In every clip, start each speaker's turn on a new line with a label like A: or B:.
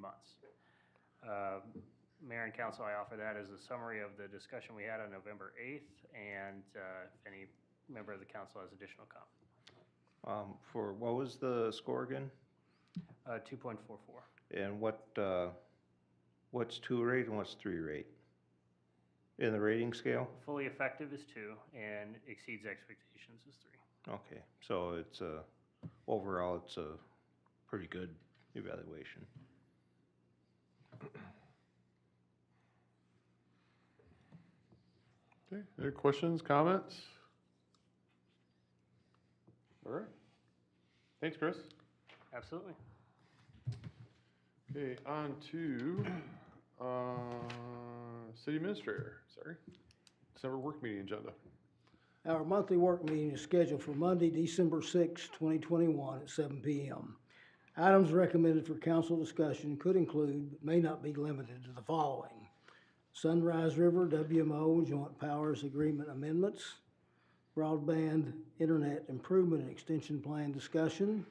A: months. Uh, Mayor and council, I offer that as a summary of the discussion we had on November 8th, and uh, if any member of the council has additional comment.
B: Um, For, what was the score again?
A: Uh, 2.44.
B: And what, uh, what's two rate and what's three rate? In the rating scale?
A: Fully effective is two, and exceeds expectations is three.
B: Okay, so it's a, overall, it's a pretty good evaluation.
C: Okay, any questions, comments? All right. Thanks, Chris.
A: Absolutely.
C: Okay, on to, uh, city administrator, sorry. December work meeting agenda.
D: Our monthly work meeting is scheduled for Monday, December sixth, twenty twenty-one at seven P M. Items recommended for council discussion could include, but may not be limited to the following. Sunrise River WMO Joint Powers Agreement Amendments, Broadband Internet Improvement and Extension Plan Discussion,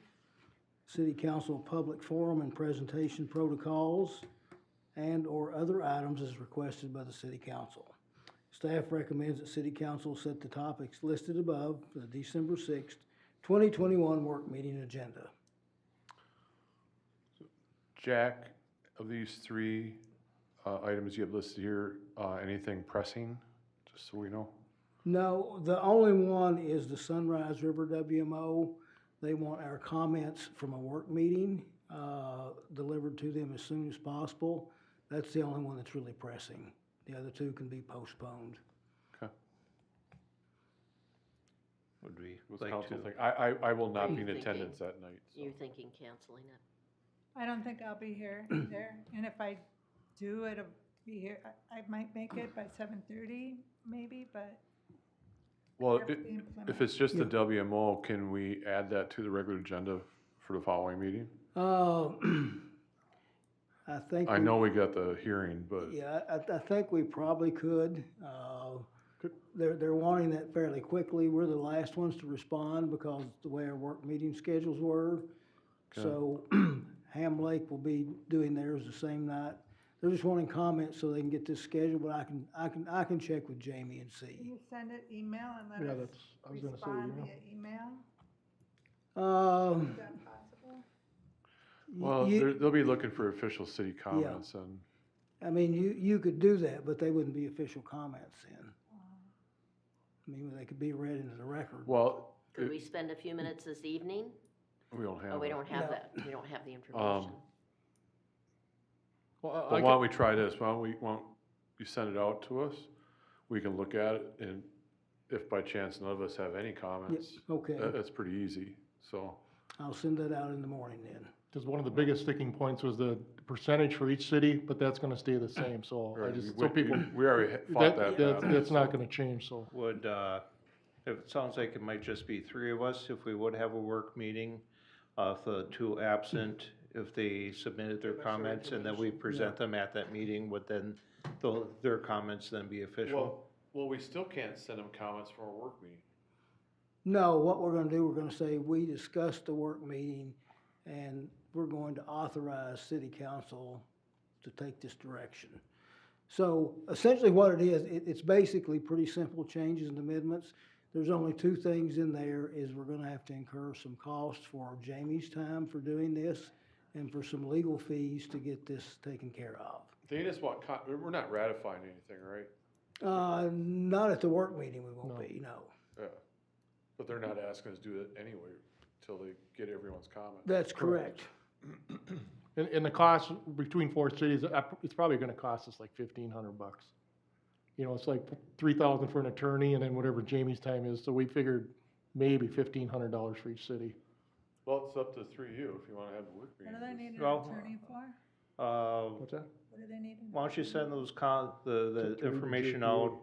D: City Council Public Forum and Presentation Protocols, and/or other items as requested by the City Council. Staff recommends that city council set the topics listed above for the December sixth, twenty twenty-one work meeting agenda.
C: Jack, of these three, uh, items you have listed here, uh, anything pressing, just so we know?
D: No, the only one is the Sunrise River WMO. They want our comments from a work meeting, uh, delivered to them as soon as possible. That's the only one that's really pressing. The other two can be postponed.
C: Okay.
B: Would we
C: What's
B: like
C: council
B: to?
C: think? I, I, I will not be in
E: Thinking.
C: attendance that night, so.
E: You're thinking canceling it?
F: I don't think I'll be here either, and if I do, it'll be here, I, I might make it by seven thirty, maybe, but
C: Well,
F: have
C: i-
F: to be in Plymouth.
C: if it's just the WMO, can we add that to the regular agenda for the following meeting?
D: Uh, I think.
C: I
D: we-
C: know we got the hearing, but
D: Yeah, I, I think we probably could. Uh,
C: Good.
D: They're, they're wanting that fairly quickly. We're the last ones to respond because the way our work meeting schedules were. So Ham Lake will be doing theirs the same night. They're just wanting comments so they can get this scheduled, but I can, I can, I can check with Jamie and
F: can
D: see.
F: you send it email and let
G: Yeah,
F: us
G: that's, I was gonna say
F: respond
G: email.
F: via email?
D: Uh,
F: Is that possible?
C: well,
D: you-
C: they're- they'll be looking for official city comments and,
D: I mean, you, you could do that, but they wouldn't be official comments then. I mean, they could be read into the record.
C: well,
E: Could
C: it-
E: we spend a few minutes this evening?
C: we don't have.
E: Oh, we
C: it.
E: don't have
D: No.
E: that, we don't have the information.
C: But why don't we try this? Why don't we, why don't you send it out to us? We can look at it and if by chance none of us have any comments, that,
D: Okay,
C: that's pretty easy, so.
D: I'll send that out in the morning then.
G: Because one of the biggest sticking points was the percentage for each city, but that's gonna stay the same, so I
C: Right,
G: just,
C: we-
G: so
C: we-
G: people.
C: We already ha- fought that.
G: That's,
C: battle,
G: that's
C: so.
G: not gonna change, so.
B: Would, uh, if it sounds like it might just be three of us, if we would have a work meeting, uh, if the two absent, if they submitted their comments and then we present them at that meeting, would then, tho- their comments then be official?
C: Well, well, we still can't send them comments from our work meeting.
D: No, what we're gonna do, we're gonna say, we discussed the work meeting, and we're going to authorize city council to take this direction. So essentially what it is, it, it's basically pretty simple changes and amendments. There's only two things in there, is we're gonna have to incur some costs for Jamie's time for doing this, and for some legal fees to get this taken care of.
C: They just want, co- we're not ratifying anything, right?
D: Uh, not at the work meeting we won't
G: No.
D: be, no.
C: Yeah. But they're not asking us to do it anyway till they get everyone's comment.
D: That's correct.
G: And, and the cost between four cities, uh, it's probably gonna cost us like fifteen hundred bucks. You know, it's like three thousand for an attorney and then whatever Jamie's time is, so we figured maybe fifteen hundred dollars for each city.
C: Well, it's up to three of you if you wanna have the work
F: What do they need
C: meeting.
F: an
B: Well,
F: attorney for?
B: Uh,
G: What's that?
F: What do they need? an-
B: Why don't you send those con, the,
G: To-
B: the
G: to
B: information
G: JPA.
B: out?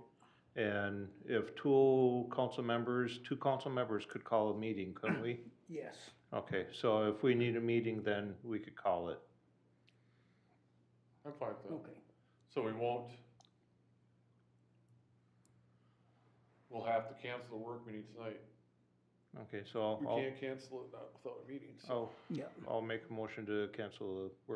B: And if two council members, two council members could call a meeting, couldn't we?
D: Yes.
B: Okay, so if we need a meeting, then we could call it.
C: I'm fine with that.
D: Okay.
C: So we won't. We'll have to cancel the work meeting tonight.
B: Okay, so
C: We
B: I'll,
C: can't cancel it not without a meeting, so.
B: I'll,
D: Yeah.
B: I'll make a motion to cancel the work